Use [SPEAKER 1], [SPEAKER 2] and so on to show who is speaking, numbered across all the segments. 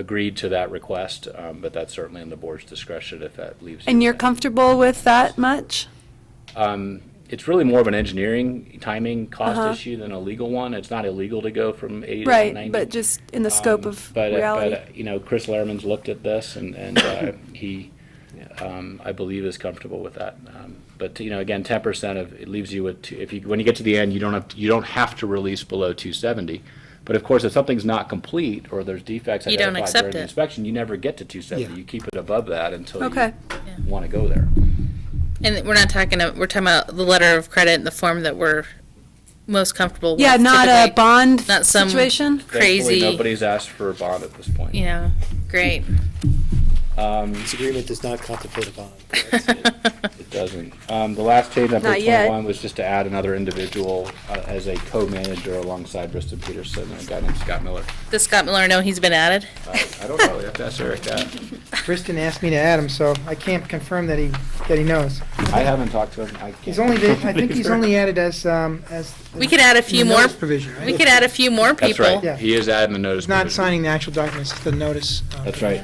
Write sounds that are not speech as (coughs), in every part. [SPEAKER 1] agreed to that request, um, but that's certainly in the board's discretion if that leaves. you
[SPEAKER 2] And you're
[SPEAKER 1] with-
[SPEAKER 2] comfortable with that much?
[SPEAKER 1] Um, It's really more of an engineering timing
[SPEAKER 2] Uh-huh.
[SPEAKER 1] cost issue than a legal one. It's not illegal to go from 80 to 90.
[SPEAKER 2] Right, but just in the scope of
[SPEAKER 1] But, uh, but,
[SPEAKER 2] reality?
[SPEAKER 1] uh, you know, Chris Lehrman's looked at this and, and uh, (coughs) he, um, I believe, is comfortable with that. Um, But, you know, again, ten percent of, it leaves you with, two- if you, when you get to the end, you don't have, you don't have to release below two seventy. But of course, if something's not complete or there's defects
[SPEAKER 3] You don't
[SPEAKER 1] identified
[SPEAKER 3] accept
[SPEAKER 1] during the
[SPEAKER 3] it.
[SPEAKER 1] inspection, you never get to two seventy.
[SPEAKER 4] Yeah.
[SPEAKER 1] You keep it above that until
[SPEAKER 2] Okay.
[SPEAKER 1] you want to go there.
[SPEAKER 3] And we're not talking, a- we're talking about the letter of credit in the form that we're most comfortable with.
[SPEAKER 2] Yeah, not a
[SPEAKER 3] typically.
[SPEAKER 2] bond
[SPEAKER 3] Not some
[SPEAKER 2] situation?
[SPEAKER 1] Thankfully,
[SPEAKER 3] Crazy,
[SPEAKER 1] Nobody's asked for a bond at this point. Um,
[SPEAKER 3] you know, great.
[SPEAKER 4] This agreement does not contemplate a bond.
[SPEAKER 1] It doesn't. Um, the last change on
[SPEAKER 2] Not
[SPEAKER 1] page
[SPEAKER 2] yet.
[SPEAKER 1] twenty-one was just to add another individual uh, as a co-manager alongside Bristol Peterson and a guy named Scott Miller.
[SPEAKER 3] Does Scott Miller know he's been added?
[SPEAKER 1] I I don't know, we have to ask Eric that.
[SPEAKER 5] Kristen asked me to add him, so I can't confirm that he, that he knows.
[SPEAKER 1] I haven't talked to him, I can't.
[SPEAKER 5] He's only, been- I think he's only added as, um, as.
[SPEAKER 3] We could add a few
[SPEAKER 5] the
[SPEAKER 3] more,
[SPEAKER 5] notice Provision, right?
[SPEAKER 3] we could add a few more
[SPEAKER 1] That's
[SPEAKER 3] people.
[SPEAKER 1] right,
[SPEAKER 5] Yeah.
[SPEAKER 1] he is adding a notice.
[SPEAKER 5] It's not
[SPEAKER 1] provision.
[SPEAKER 5] signing the actual documents, it's the notice. uh,
[SPEAKER 1] That's right.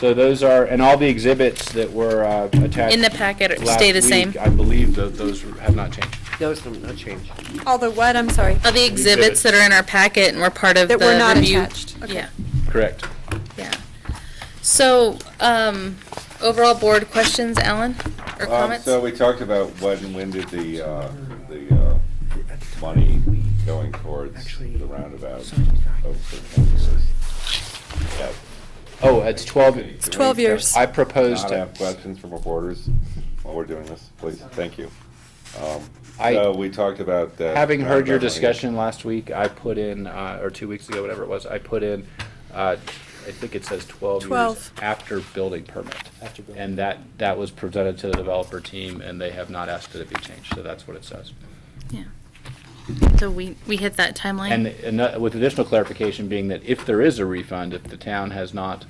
[SPEAKER 1] So those are, and all the exhibits that were uh, attached.
[SPEAKER 3] In the packet,
[SPEAKER 1] last
[SPEAKER 3] stay the same.
[SPEAKER 1] week, I believe that those have not changed.
[SPEAKER 6] Those will not change.
[SPEAKER 2] All the what, I'm sorry,
[SPEAKER 3] Of the exhibits that are in our packet and were part of the
[SPEAKER 2] that
[SPEAKER 3] review.
[SPEAKER 2] were not attached? Okay.
[SPEAKER 3] Yeah,
[SPEAKER 1] Correct.
[SPEAKER 3] yeah. So, um, overall board questions, Alan, or
[SPEAKER 7] Um,
[SPEAKER 3] comments?
[SPEAKER 7] So we talked about when, when did the, uh, the, uh, money going towards
[SPEAKER 5] Actually,
[SPEAKER 7] the roundabout?
[SPEAKER 5] some of these
[SPEAKER 7] open
[SPEAKER 5] documents.
[SPEAKER 7] campus? Yeah.
[SPEAKER 1] Oh, it's twelve,
[SPEAKER 7] It's
[SPEAKER 2] 12 years.
[SPEAKER 1] I
[SPEAKER 7] Not
[SPEAKER 1] proposed,
[SPEAKER 7] have questions from reporters while we're doing this, please, thank you. Um,
[SPEAKER 1] I-
[SPEAKER 7] So we talked about that.
[SPEAKER 1] Having heard your
[SPEAKER 7] roundabout money.
[SPEAKER 1] discussion last week, I put in, uh, or two weeks ago, whatever it was, I put in, uh, I think it says twelve years
[SPEAKER 2] 12.
[SPEAKER 1] after building permit.
[SPEAKER 4] After building.
[SPEAKER 1] And that, that was presented to the developer team, and they have not asked that it be changed, so that's what it says.
[SPEAKER 3] Yeah. So we, we hit that timeline?
[SPEAKER 1] And, and that- with additional clarification being that if there is a refund, if the town has not,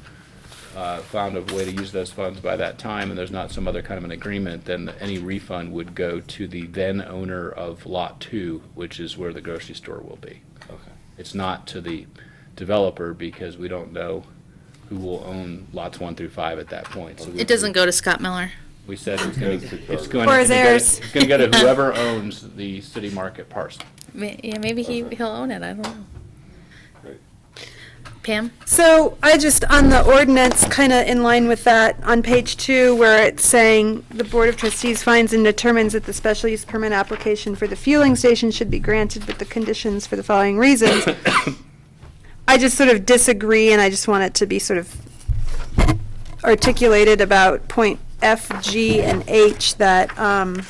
[SPEAKER 1] uh, found a way to use those funds by that time, and there's not some other kind of an agreement, then any refund would go to the then owner of Lot Two, which is where the grocery store will be.
[SPEAKER 7] Okay.
[SPEAKER 1] It's not to the developer because we don't know who will own lots one through five at that point. So we-
[SPEAKER 3] It doesn't go to Scott Miller.
[SPEAKER 1] We said it's gonna,
[SPEAKER 7] Goes to
[SPEAKER 1] it's
[SPEAKER 7] Kroger.
[SPEAKER 1] going.
[SPEAKER 2] Or
[SPEAKER 1] it's
[SPEAKER 2] his
[SPEAKER 1] gonna go to-
[SPEAKER 2] heirs.
[SPEAKER 1] It's gonna go to whoever owns the city market parcel.
[SPEAKER 3] Ma- Yeah, maybe he, he'll own it, I don't know.
[SPEAKER 7] Great.
[SPEAKER 3] Pam?
[SPEAKER 2] So I just, on the ordinance, kind of in line with that, on page two, where it's saying, "The Board of Trustees finds and determines that the special use permit application for the fueling station should be granted with the conditions for the following reasons." (coughs) I just sort of disagree, and I just want it to be sort of articulated about point F, G, and H, that, um,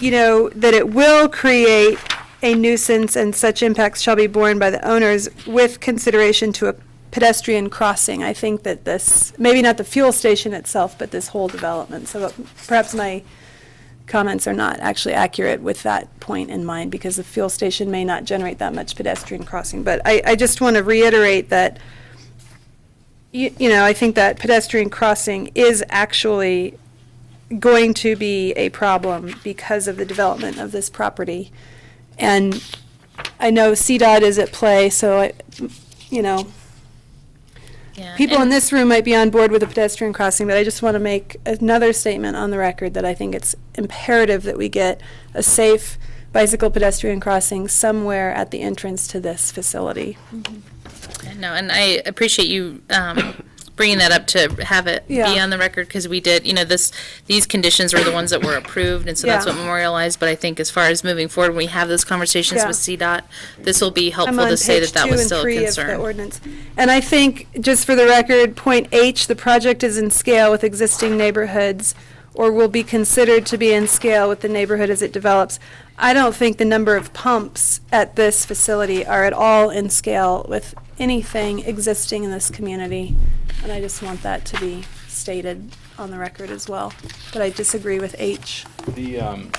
[SPEAKER 2] you know, that it will create a nuisance and such impacts shall be borne by the owners with consideration to a pedestrian crossing. I think that this, maybe not the fuel station itself, but this whole development. So perhaps my comments are not actually accurate with that point in mind because the fuel station may not generate that much pedestrian crossing. But I, I just want to reiterate that, you, you know, I think that pedestrian crossing is actually going to be a problem because of the development of this property. And I know CDOT is at play, so, I- you know,
[SPEAKER 3] Yeah,
[SPEAKER 2] people in
[SPEAKER 3] and-
[SPEAKER 2] this room might be on board with a pedestrian crossing, but I just want to make another statement on the record that I think it's imperative that we get a safe bicycle pedestrian crossing somewhere at the entrance to this facility.
[SPEAKER 3] No, and I appreciate you um, bringing that up to have it be
[SPEAKER 2] Yeah.
[SPEAKER 3] on the record, because we did, you know, this, these conditions were the ones that were approved, and so that's
[SPEAKER 2] Yeah.
[SPEAKER 3] what memorialized, but I think as far as moving forward, when we have those conversations
[SPEAKER 2] Yeah.
[SPEAKER 3] with CDOT, this will be
[SPEAKER 2] I'm
[SPEAKER 3] helpful
[SPEAKER 2] on
[SPEAKER 3] to say
[SPEAKER 2] page
[SPEAKER 3] that that
[SPEAKER 2] two
[SPEAKER 3] was
[SPEAKER 2] and
[SPEAKER 3] still a
[SPEAKER 2] three of the
[SPEAKER 3] concern.
[SPEAKER 2] ordinance. And I think, just for the record, point H, the project is in scale with existing neighborhoods or will be considered to be in scale with the neighborhood as it develops. I don't think the number of pumps at this facility are at all in scale with anything existing in this community. And I just want that to be stated on the record as well. But I disagree with H.
[SPEAKER 1] The, um,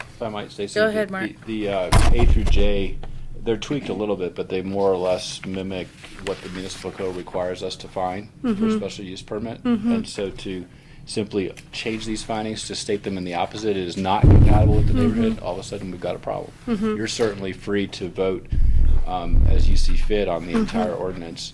[SPEAKER 1] if I might say something.
[SPEAKER 3] ahead,
[SPEAKER 1] the-
[SPEAKER 3] Mark.
[SPEAKER 1] The, uh, A through J, they're tweaked a little bit, but they more or less mimic what the municipal code requires us to find for
[SPEAKER 3] Mm-hmm.
[SPEAKER 1] a special use permit. And so to simply change these findings to state them in the opposite
[SPEAKER 3] Mm-hmm.
[SPEAKER 1] is not compatible with the neighborhood, all of a sudden we've got a problem. You're certainly free to vote
[SPEAKER 3] Mm-hmm.
[SPEAKER 1] um, as you see fit on the entire ordinance.